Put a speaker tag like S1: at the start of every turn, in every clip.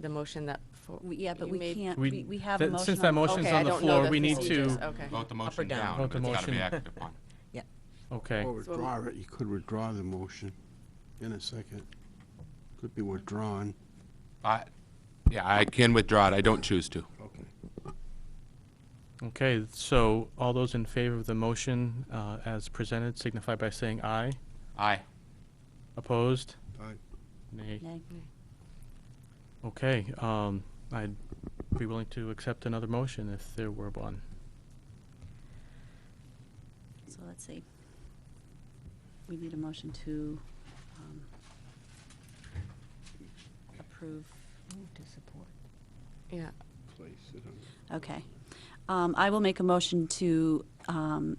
S1: the motion that. for-
S2: We- Yeah, but
S1: you
S2: we
S1: made?
S2: can't,
S3: We-
S2: we we have a
S3: that-
S2: motion.
S3: since that
S2: on the floor.
S3: motion's
S1: Okay,
S3: on
S1: I
S3: the
S1: don't know
S3: floor,
S1: the
S3: we need
S1: procedures.
S3: to-
S1: Okay.
S4: Vote the
S5: or
S4: motion
S5: down?
S4: down.
S3: Vote the
S4: It's gotta be
S3: motion.
S4: acted upon.
S3: Okay,
S6: Or withdraw it, you could withdraw the motion in a second. Could be withdrawn.
S4: I, yeah, I can withdraw it. I don't choose to.
S6: Okay.
S3: okay, so all those in favor of the motion uh, as presented signify by saying aye.
S4: Aye.
S3: Opposed?
S6: Aye.
S3: Nay.
S2: Nay.
S3: Okay, um, I'd be willing to accept another motion if there were one.
S2: So let's see. We need a motion to um, approve.
S1: Yeah,
S6: Place it on.
S2: Okay. Um, I will make a motion to um,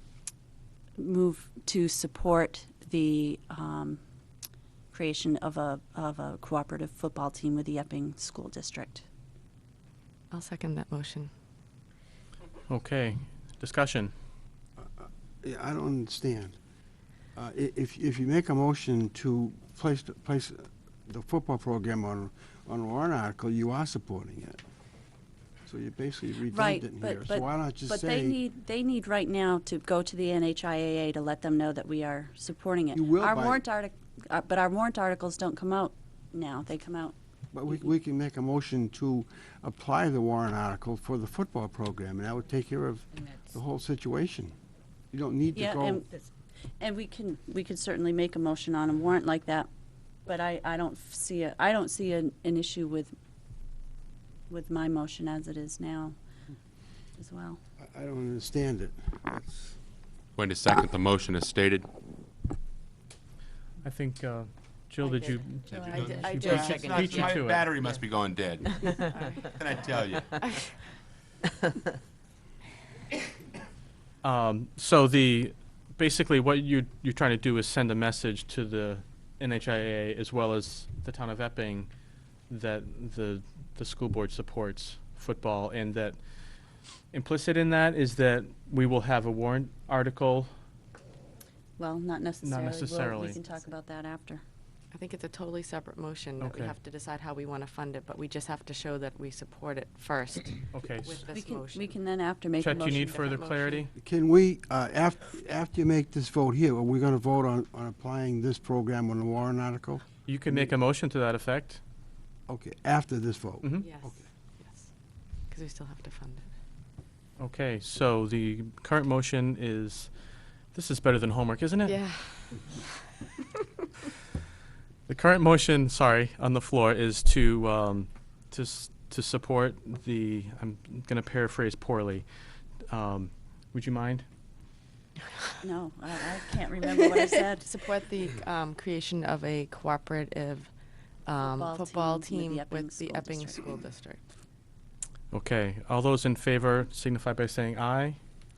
S2: move, to support the um, creation of a, of a cooperative football team with the Epping School District.
S1: I'll second that motion.
S3: Okay, discussion.
S6: Yeah, I don't understand. Uh, i- If, if you make a motion to place, the- place the football program on, on a warrant article, you are supporting it. So you're basically
S2: Right,
S6: redundant here.
S2: but,
S6: So
S2: but,
S6: why not just
S2: but they
S6: say,
S2: need, they need right now to go to the NHIAA to let them know that we are supporting it.
S6: You will
S2: Our
S6: by-
S2: warrant artic, uh, but our warrant articles don't come out now, they come out,
S6: but we, we can make a motion to apply the warrant article for the football program, and that would take care of the whole situation. You don't need to
S2: yeah,
S6: go,
S2: and, and we can, we could certainly make a motion on a warrant like that, but I, I don't f- see a, I don't see an, an issue with, with my motion as it is now as well.
S6: I- I don't understand it. That's-
S4: Going to second the motion as stated.
S3: I think, uh, Jill,
S1: I
S3: did
S1: did.
S3: you?
S1: Jill, I did- I
S3: you
S1: did
S3: beat you-
S1: second it,
S3: beat you
S4: My
S3: to it.
S4: battery must be going dead. Can I tell you?
S3: Um, so the, basically what you, you're trying to do is send a message to the NHIA as well as the town of Epping that the, the school board supports football and that implicit in that is that we will have a warrant article.
S2: Well, not necessarily. We'll-
S3: necessarily.
S2: We can talk about that after.
S1: I think it's a totally separate motion that we
S3: Okay.
S1: have to decide how we want to fund it, but we just have to show that we support it first
S3: Okay.
S1: with
S2: We
S1: this
S2: can,
S1: motion.
S2: we can then after make a
S3: Chet,
S2: motion.
S3: do you need
S1: different
S3: further
S1: motion.
S3: clarity?
S6: Can we, uh, af- after you make this vote here, are we going to vote on, on applying this program on the warrant article?
S3: You can make a motion to that effect.
S6: Okay, after this vote?
S3: Mhm.
S1: Yes, yes. Because we still have to fund it.
S3: Okay, so the current motion is, this is better than homework, isn't it?
S1: Yeah.
S3: The current motion, sorry, on the floor is to, um, to, s- to support the, I'm gonna paraphrase poorly. Um, would you mind?
S2: No, I, I can't remember what I said.
S1: Support the um, creation of a cooperative um,
S2: Football
S1: football
S2: team
S1: team
S2: with the Epping
S1: with the
S2: School
S1: Epping School
S2: District.
S1: District.
S3: Okay, all those in favor signify by saying aye.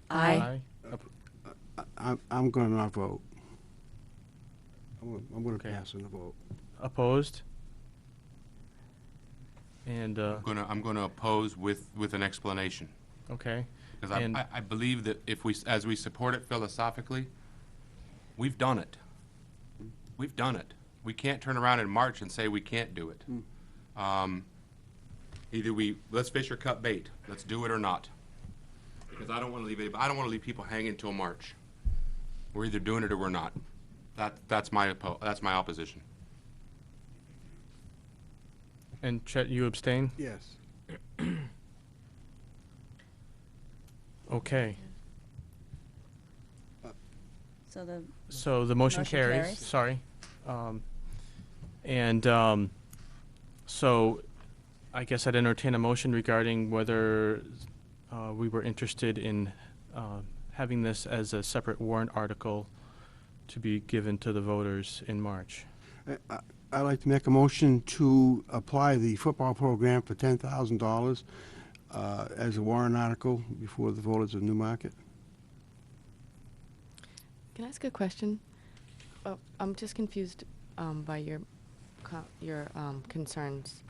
S1: Aye.
S6: I'm, I'm going to not vote. I'm gonna- I'm going to
S3: Okay.
S6: pass on the vote.
S3: Opposed? And, uh,
S4: I'm gonna, I'm gonna oppose with, with an explanation.
S3: okay,
S4: Because I,
S3: And-
S4: I, I believe that if we, s- as we support it philosophically, we've done it. We've done it. We can't turn around in March and say we can't do it. Um, Either we, let's fish or cut bait. Let's do it or not. Because I don't want to leave, any- I don't want to leave people hanging till March. We're either doing it or we're not. That, that's my, oppo- that's my opposition.
S3: and Chet, you abstain?
S6: Yes.
S3: Okay,
S2: So the,
S3: so the motion
S2: Motion
S3: carries,
S2: carries.
S3: sorry. Um, and, um, so I guess I'd entertain a motion regarding whether uh, we were interested in uh, having this as a separate warrant article to be given to the voters in March.
S6: I'd like to make a motion to apply the football program for $10,000 uh, as a warrant article before the voters of Newmarket.
S1: Can I ask a question? Oh, I'm just confused um, by your, co- your um, concerns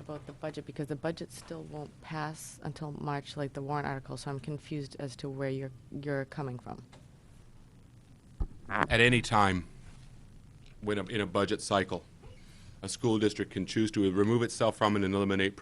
S1: about the budget, because the budget still won't pass until March, like the warrant article, so I'm confused as to where you're, you're coming from.
S4: at any time when a, in a budget cycle. A school district can choose to remove itself from and eliminate